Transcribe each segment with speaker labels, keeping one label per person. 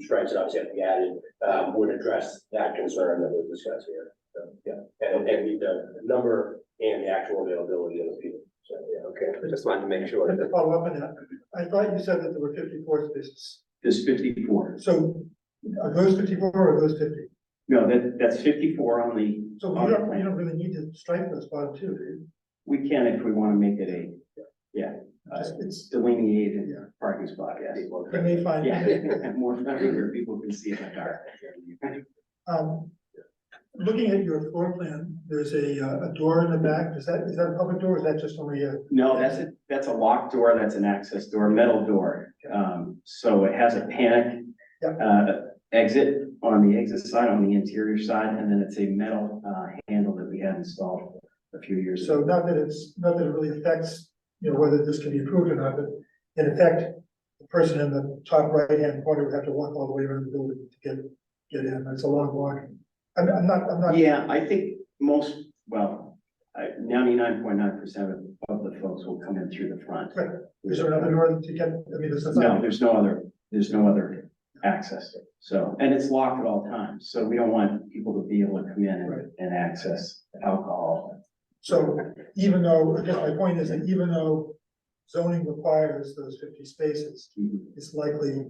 Speaker 1: shreds that obviously have to be added, um, would address that concern that we discussed here. So, yeah, and, and the- the number and the actual availability of the people. So, yeah, okay, I just wanted to make sure.
Speaker 2: Just to
Speaker 1: that-
Speaker 2: follow up on that, I thought you said that there were fifty-four spaces,
Speaker 3: There's fifty-four.
Speaker 2: so are those fifty-four or are those fifty?
Speaker 3: No, that, that's fifty-four on the,
Speaker 2: So you don't, you don't really need to strike those bottom two, do you?
Speaker 3: we can if we want to make it a, yeah, uh,
Speaker 2: Just-
Speaker 3: it's delineated
Speaker 2: Yeah.
Speaker 3: parking spot, yes.
Speaker 2: When they find,
Speaker 3: Yeah, more friendly where people can see in the dark.
Speaker 2: um, looking at your floor plan, there's a, uh, a door in the back, is that, is that a public door, or is that just only a?
Speaker 3: No, that's a, that's a locked door, that's an access door, metal door. Um, so it has a panic,
Speaker 2: Yep.
Speaker 3: uh, exit on the exit side, on the interior side, and then it's a metal, uh, handle that we had installed a few years
Speaker 2: So
Speaker 3: ago.
Speaker 2: not that it's, not that it really affects, you know, whether this can be approved or not, but in effect, the person in the top right-hand corner would have to walk all the way around the building to get, get in, it's a long walk. I'm, I'm not, I'm not,
Speaker 3: Yeah, I think most, well, ninety-nine point nine percent of the folks will come in through the front.
Speaker 2: Right. is there another door to get, I mean, this is.
Speaker 3: No, there's no other, there's no other access, so, and it's locked at all times, so we don't want people to be able to come in
Speaker 2: Right.
Speaker 3: and, and access alcohol.
Speaker 2: So even though, I guess my point is that even though zoning requires those fifty spaces, it's likely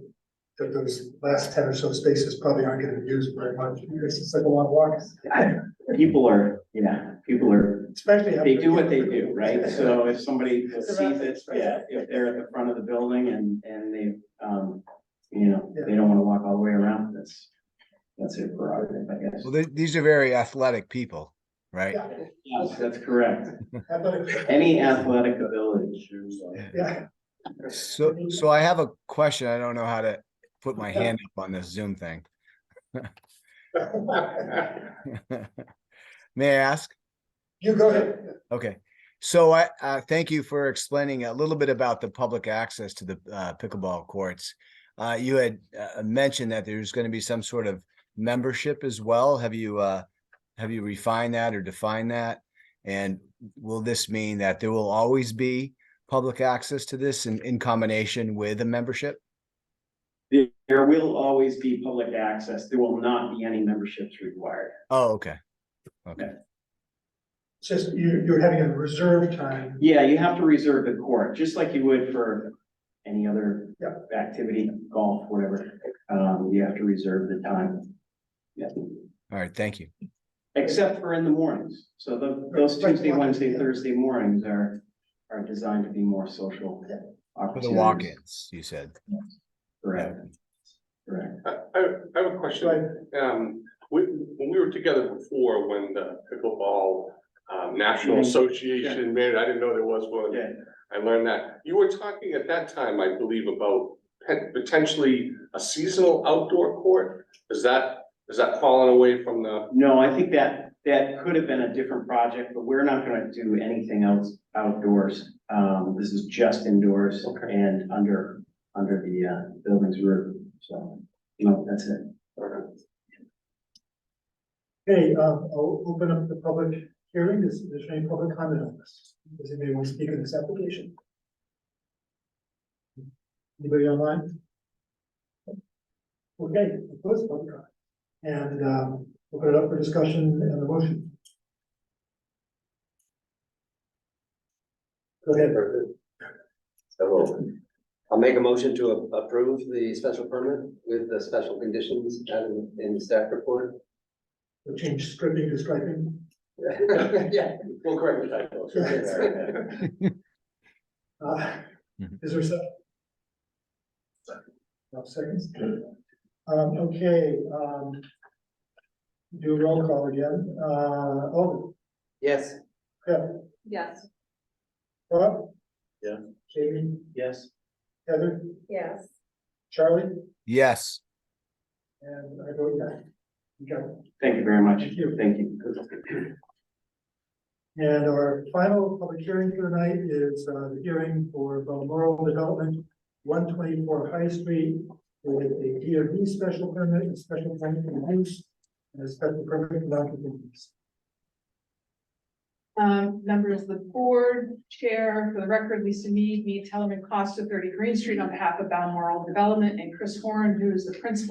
Speaker 2: that those last ten or so spaces probably aren't gonna be used very much, because it's like a long walk,
Speaker 3: I- People are, yeah, people are,
Speaker 2: especially. after-
Speaker 3: they do what they do, right? So if somebody sees it, yeah, if they're at the front of the building and, and they, um, you know, they don't wanna walk all the way around, that's, that's their prerogative, I guess.
Speaker 4: Well, they, these are very athletic people, right?
Speaker 2: Yeah,
Speaker 3: Yes, that's correct.
Speaker 2: I thought it-
Speaker 3: Any athletic ability.
Speaker 2: yeah,
Speaker 4: So, so I have a question. I don't know how to put my hand up on this Zoom thing. May I ask?
Speaker 2: you go ahead,
Speaker 4: Okay, so I, uh, thank you for explaining a little bit about the public access to the, uh, pickleball courts. Uh, you had, uh, mentioned that there's gonna be some sort of membership as well. Have you, uh, have you refined that or defined that? And will this mean that there will always be public access to this in, in combination with a membership?
Speaker 3: There will always be public access. There will not be any memberships required.
Speaker 4: Oh, okay. Okay,
Speaker 2: it's just, you, you're having a reserve time,
Speaker 3: Yeah, you have to reserve the court, just like you would for any other
Speaker 2: Yeah.
Speaker 3: activity, golf, whatever. Um, you have to reserve the time. Yeah,
Speaker 4: all right, thank you.
Speaker 3: except for in the mornings. So tho- those
Speaker 2: Right,
Speaker 3: Tuesday,
Speaker 2: right.
Speaker 3: Wednesday, Thursday mornings are, are designed to be more social
Speaker 2: Yeah.
Speaker 4: For
Speaker 3: opportunities.
Speaker 4: the walk-ins, you said.
Speaker 3: Correct, correct.
Speaker 5: I, I I have a question. Um, we, when we were together before, when the pickleball um, National
Speaker 3: Mhm.
Speaker 5: Association made, it, I didn't know there was one.
Speaker 3: Yeah,
Speaker 5: I learned that. You were talking at that time, I believe, about pot- potentially a seasonal outdoor court? Is that, is that falling away from the,
Speaker 3: no, I think that, that could have been a different project, but we're not gonna do anything else outdoors. Um, this is just indoors
Speaker 5: Okay.
Speaker 3: and under, under the, uh, building's roof, so, no, that's it.
Speaker 2: hey, um, I'll open up the public hearing, is, is there any public comment on this? Does anybody want to speak on this application? Anybody online? Okay, close public comment, and, um, open it up for discussion and a motion. Go ahead, Bert.
Speaker 6: So I'll make a motion to a- approve the special permit with the special conditions and in staff report.
Speaker 2: We'll change scripting to striping.
Speaker 6: Yeah, we'll correct the typos.
Speaker 2: Uh,
Speaker 4: Mhm.
Speaker 2: Is there se- no seconds? Um, okay, um. Do a roll call again, uh, Alden,
Speaker 6: Yes,
Speaker 2: Deb,
Speaker 7: Yes.
Speaker 2: Rob?
Speaker 6: Yeah.
Speaker 2: Jamie,
Speaker 3: Yes.
Speaker 2: Heather,
Speaker 7: Yes.
Speaker 2: Charlie,
Speaker 4: Yes.
Speaker 2: and I vote yes. You got it.
Speaker 3: Thank you very much.
Speaker 2: Thank you.
Speaker 3: Thank you.
Speaker 2: And our final public hearing for tonight is uh, the hearing for Balmoral Development, one twenty-four High Street, with a DRB special permit, a special permit for use, and a special permit for non-convenience.
Speaker 7: Um, members of the board, chair, for the record, Lisa Mead, me, Tellerman Costa, thirty Green Street, on behalf of Balmoral Development, and Chris Horn, who is the principal